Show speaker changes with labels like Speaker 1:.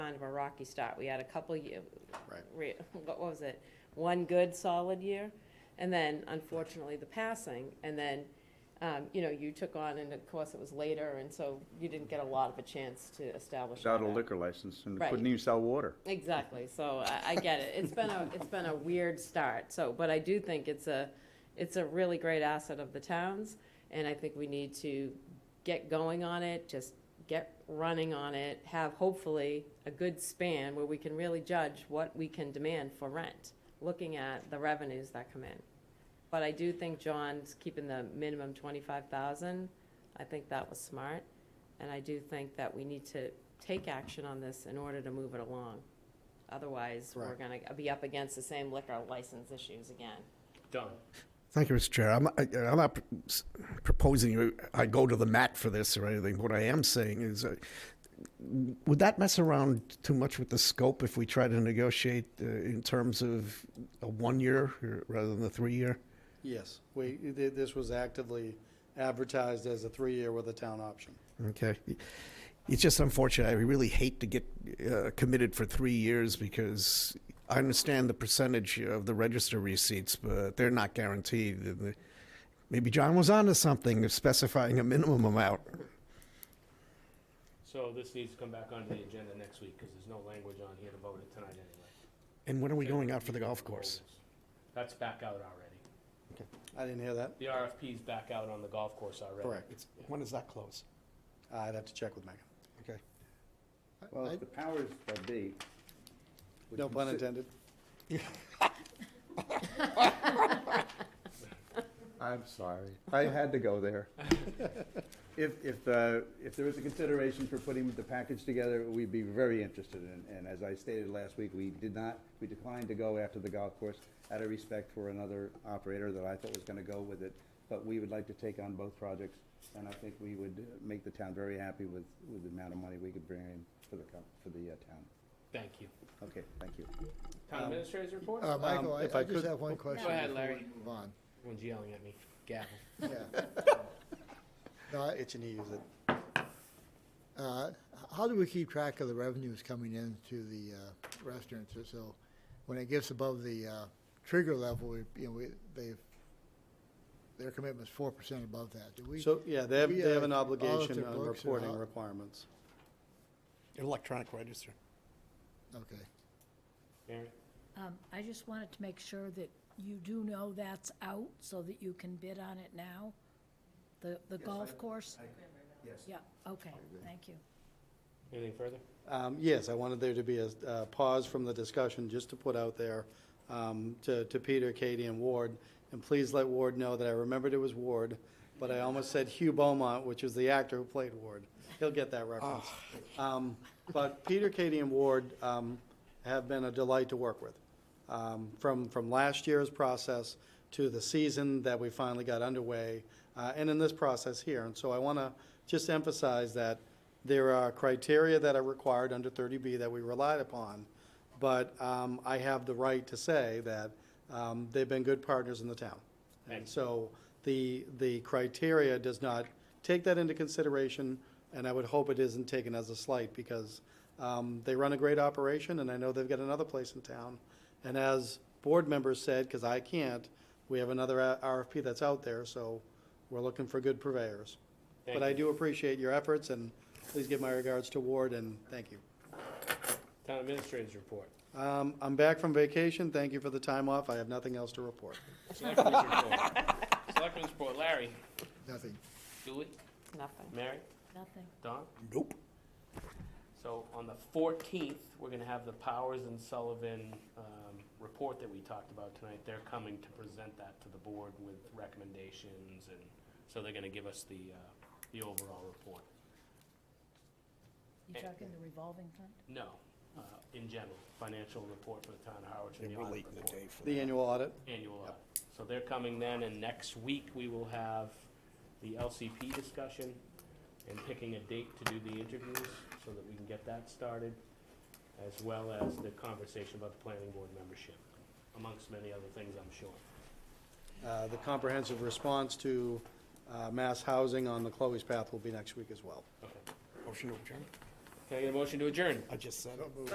Speaker 1: kind of a rocky start. We had a couple year,
Speaker 2: Right.
Speaker 1: re- what was it? One good solid year, and then unfortunately the passing, and then, um, you know, you took on, and of course it was later, and so you didn't get a lot of a chance to establish.
Speaker 3: without a
Speaker 1: that.
Speaker 3: liquor license and
Speaker 1: Right.
Speaker 3: couldn't even sell water.
Speaker 1: Exactly, so I, I get it. It's been a, it's been a weird start, so, but I do think it's a, it's a really great asset of the towns, and I think we need to get going on it, just get running on it, have hopefully a good span where we can really judge what we can demand for rent, looking at the revenues that come in. But I do think John's keeping the minimum twenty-five thousand. I think that was smart. And I do think that we need to take action on this in order to move it along. Otherwise, we're
Speaker 2: Right.
Speaker 1: gonna be up against the same liquor license issues again.
Speaker 4: Done.
Speaker 2: Thank you, Mr. Chair. I'm, I, I'm not proposing I go to the mat for this or anything. What I am saying is, uh, would that mess around too much with the scope if we try to negotiate uh, in terms of a one year rather than the three year?
Speaker 5: Yes, we, th- this was actively advertised as a three-year with a town option.
Speaker 2: Okay. It's just unfortunate. I really hate to get uh, committed for three years because I understand the percentage of the register receipts, but they're not guaranteed. And the- Maybe John was onto something of specifying a minimum amount.
Speaker 4: So this needs to come back onto the agenda next week, because there's no language on here to vote it tonight anyway.
Speaker 2: And when are we going out for the golf course?
Speaker 4: That's back out already.
Speaker 5: I didn't hear that.
Speaker 4: The RFP's back out on the golf course already.
Speaker 2: It's- When does that close?
Speaker 5: I'd have to check with Megan.
Speaker 2: Okay.
Speaker 3: Well, if the powers that be. would
Speaker 5: No pun
Speaker 3: consi-
Speaker 5: intended.
Speaker 3: I'm sorry. I had to go there. If, if, uh, if there was a consideration for putting the package together, we'd be very interested in. And as I stated last week, we did not, we declined to go after the golf course out of respect for another operator that I thought was gonna go with it. But we would like to take on both projects, and I think we would make the town very happy with, with the amount of money we could bring in for the, com- for the uh, town.
Speaker 4: Thank you.
Speaker 3: Okay, thank you.
Speaker 4: Town administrator's report?
Speaker 6: Uh, Michael, I,
Speaker 5: Um, if I
Speaker 6: I just
Speaker 5: could-
Speaker 6: have one question.
Speaker 4: ahead,
Speaker 6: before we
Speaker 4: Larry.
Speaker 6: Move on.
Speaker 4: Everyone's yelling at me. Gavel.
Speaker 6: Yeah. No, I-
Speaker 5: Itching to use it.
Speaker 6: uh, How do we keep track of the revenues coming in to the uh, restaurants? So- So when it gets above the uh, trigger level, we, you know, we, they, their commitment's four percent above that. Do we?
Speaker 5: So, yeah, they have,
Speaker 6: we,
Speaker 5: they have
Speaker 6: uh,
Speaker 5: an obligation
Speaker 6: audit their
Speaker 5: on
Speaker 6: books or
Speaker 5: reporting
Speaker 6: how-
Speaker 5: requirements.
Speaker 2: Electronic register.
Speaker 6: Okay.
Speaker 4: Mary?
Speaker 7: Um, I just wanted to make sure that you do know that's out so that you can bid on it now, the, the golf course?
Speaker 3: Yes.
Speaker 7: Yeah, okay, thank you.
Speaker 4: Anything further?
Speaker 5: Um, Yes, I wanted there to be a uh, pause from the discussion, just to put out there um, to to Peter, Katie, and Ward, and please let Ward know that I remembered it was Ward, but I almost said Hugh Beaumont, which is the actor who played Ward. He'll get that reference. Um, But Peter, Katie, and Ward um, have been a delight to work with. Um, From, from last year's process to the season that we finally got underway, uh, and in this process here. And so I want to just emphasize that there are criteria that are required under 30B that we relied upon, but um, I have the right to say that um, they've been good partners in the town. And so the, the criteria does not take that into consideration, and I would hope it isn't taken as a slight, because um, they run a great operation, and I know they've got another place in town. And as board members said, because I can't, we have another a- RFP that's out there, so we're looking for good purveyors.
Speaker 4: Thank
Speaker 5: But I do appreciate your efforts, and please give my regards to Ward, and thank you.
Speaker 4: Town administrator's report.
Speaker 5: Um, I'm back from vacation. Thank you for the time off. I have nothing else to report.
Speaker 4: Selectmen's report. Selectmen's report. Larry?
Speaker 6: Nothing.
Speaker 4: Julie?
Speaker 1: Nothing.
Speaker 4: Mary?
Speaker 7: Nothing.
Speaker 4: Don?
Speaker 2: Nope.
Speaker 4: So on the fourteenth, we're gonna have the Powers and Sullivan, um, report that we talked about tonight. They're coming to present that to the board with recommendations and, so they're gonna give us the, uh, the overall report.
Speaker 7: You talking the revolving fund?
Speaker 4: No, uh, in general, financial report for the town of Harwich and the audit report,
Speaker 2: for
Speaker 5: The annual audit.
Speaker 4: annual audit. So they're coming then, and next week, we will have the LCP discussion and picking a date to do the interviews, so that we can get that started, as well as the conversation about the planning board membership, amongst many other things, I'm sure.
Speaker 5: Uh, The comprehensive response to uh, mass housing on the Chloe's Path will be next week as well.
Speaker 4: Okay.
Speaker 2: Motion to adjourn.
Speaker 8: Can I get a motion to adjourn?
Speaker 4: I just said it.